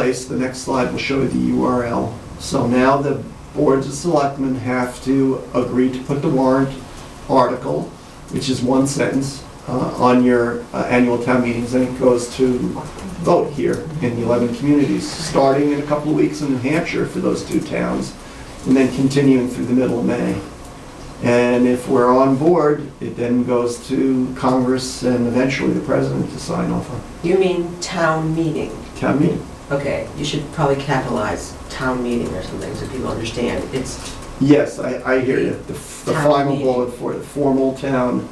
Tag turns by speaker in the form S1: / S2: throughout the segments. S1: place, the next slide will show you the URL. So now the boards of selectmen have to agree to put the warrant article, which is one sentence, uh, on your uh, annual town meetings, and it goes to vote here in the 11 communities, starting in a couple of weeks in New Hampshire for those two towns, and then continuing through the middle of May. And if we're on board, it then goes to Congress and eventually the president to sign off on
S2: You mean town meeting?
S1: town meeting.
S2: Okay, you should probably capitalize town meeting or something so people understand. It's,
S1: Yes, I, I hear you. The f- the
S2: Town
S1: final
S2: meeting.
S1: bullet for the formal town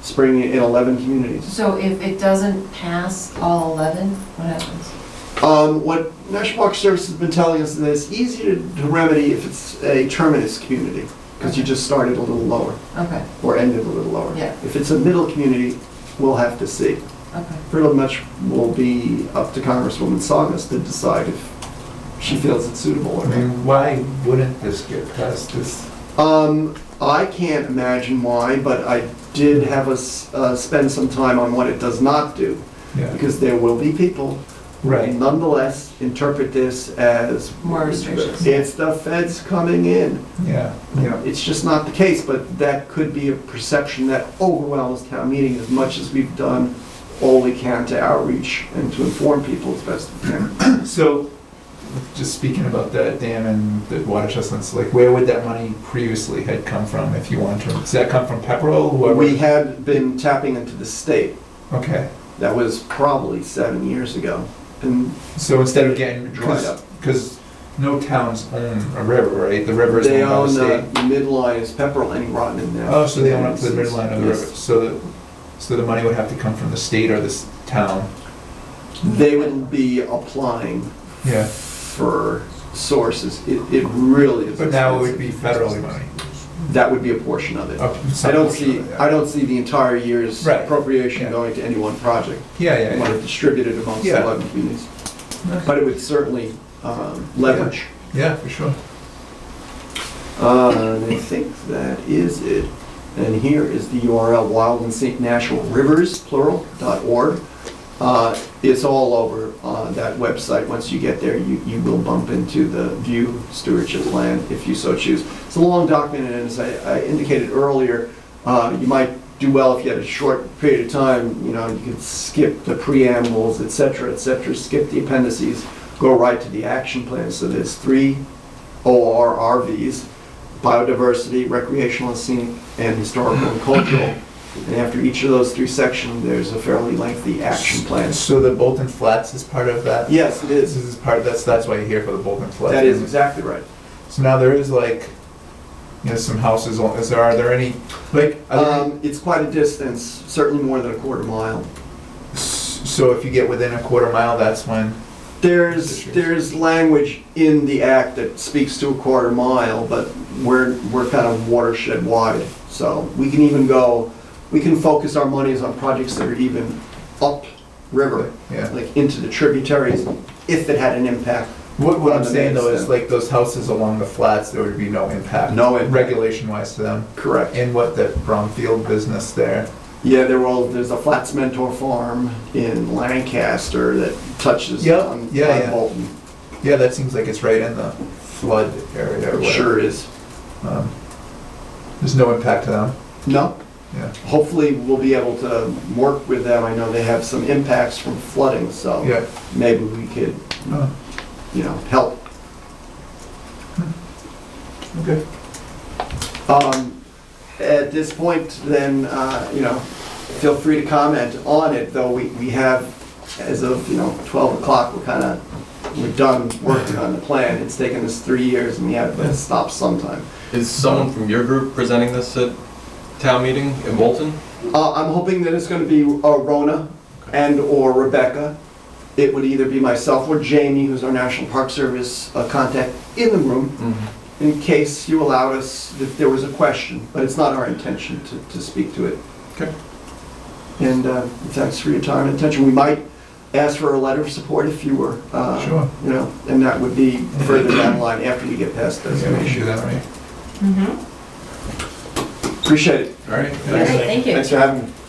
S1: spring in 11 communities.
S3: So if it doesn't pass all 11, what happens?
S1: Um, What National Park Service has been telling us is that it's easy to to remedy if it's a terminus community, because you just started a little lower,
S3: Okay,
S1: or ended a little lower.
S3: Yeah.
S1: If it's a middle community, we'll have to see.
S3: okay.
S1: Pretty much will be up to Congresswoman Saugus to decide if she feels it's suitable or
S4: I
S1: not.
S4: mean, why wouldn't this get passed this?
S1: Um, I can't imagine why, but I did have us uh, spend some time on what it does not do,
S4: Yeah,
S1: because there will be people who
S4: right.
S1: nonetheless interpret this as
S3: More restrictions.
S1: It's the feds coming in.
S4: Yeah, yeah,
S1: It's just not the case, but that could be a perception that overwhelms town meeting as much as we've done all we can to outreach and to inform people as best we can.
S4: so, just speaking about that dam and the water chestnuts, like, where would that money previously had come from, if you want to? Does that come from Pepperell,
S1: We
S4: whoever?
S1: had been tapping into the state.
S4: Okay,
S1: That was probably seven years ago. And
S4: so instead of getting,
S1: Dried up.
S4: because no towns own a river, right? The river is
S1: They
S4: owned by the
S1: own uh,
S4: state.
S1: the midline is Pepperell and Groton now.
S4: Oh, so they own up to the midline of the river,
S1: Yes.
S4: so, the- so the money would have to come from the state or this town?
S1: They would be applying
S4: Yeah,
S1: for sources. It, it really is.
S4: but now it would
S1: expensive.
S4: be federally money.
S1: That would be a portion of it. I
S4: Up-
S1: don't
S4: some portion
S1: see,
S4: of it, yeah.
S1: I don't see the entire year's
S4: Right.
S1: appropriation
S4: Yeah.
S1: going to any one project.
S4: Yeah, yeah,
S1: It
S4: yeah.
S1: might have distributed amongst
S4: Yeah.
S1: 11 communities.
S4: Nice.
S1: But it would certainly um, leverage.
S4: Yeah, for sure.
S1: Uh, and I think that is it. And here is the URL, wildandsaintnaturalrivers.org. Uh, it's all over uh, that website. Once you get there, you, you will bump into the view stewardship plan if you so choose. It's a long document, and as I, I indicated earlier, uh, you might do well if you had a short period of time. You know, you could skip the preambles, et cetera, et cetera, skip the appendices, go right to the action plan. So there's three ORRVs, biodiversity, recreational and scenic, and historical and cultural. And after each of those three sections, there's a fairly lengthy action plan.
S4: So the Bolton Flats is part of that?
S1: Yes, it
S4: This
S1: is.
S4: is part, that's, that's why you're here for the Bolton Flats.
S1: That is exactly right.
S4: So now there is like, you know, some houses, on- is there, are there any, like, are there-
S1: Um, It's quite a distance, certainly more than a quarter mile.
S4: s- so if you get within a quarter mile, that's when?
S1: There's,
S4: Issues.
S1: there's language in the act that speaks to a quarter mile, but we're, we're kind of watershed wide. So we can even go, we can focus our monies on projects that are even upriver,
S4: Yeah.
S1: like into the tributaries, if it had an impact.
S4: What, what I'm
S1: On the
S4: saying though
S1: next
S4: is
S1: then.
S4: like those houses along the flats, there would be no impact.
S1: No impact.
S4: Regulation wise to them.
S1: Correct.
S4: And what the Bromfield business there,
S1: Yeah, there were, there's a Flats Mentor Farm in Lancaster that touches
S4: Yep,
S1: on
S4: yeah,
S1: on
S4: yeah.
S1: Bolton.
S4: yeah, that seems like it's right in the flood area or whatever.
S1: Sure is.
S4: Um, There's no impact to them,
S1: No,
S4: yeah.
S1: hopefully we'll be able to work with them. I know they have some impacts from flooding, so.
S4: Yeah.
S1: maybe we could,
S4: Oh,
S1: you know, help.
S4: Okay.
S1: Um, At this point, then, uh, you know, feel free to comment on it, though we, we have, as of, you know, 12 o'clock, we're kind of, we're done working on the plan. It's taken us three years and we have to stop sometime.
S5: Is someone from your group presenting this at town meeting in Bolton?
S1: Uh, I'm hoping that it's going to be uh, Rona and/or Rebecca. It would either be myself or Jamie, who's our National Park Service uh, contact in the room. in case you allowed us, if there was a question, but it's not our intention to, to speak to it.
S5: Okay.
S1: And uh, thanks for your time and attention. We might ask for a letter of support if you were, uh,
S4: Sure.
S1: you know, and that would be further down the line after you get past this
S4: Yeah, we
S1: issue.
S4: should do that, right?
S3: Mm-hmm.
S1: Appreciate it.
S5: All right.
S3: All right, thank you.
S1: Thanks for having me.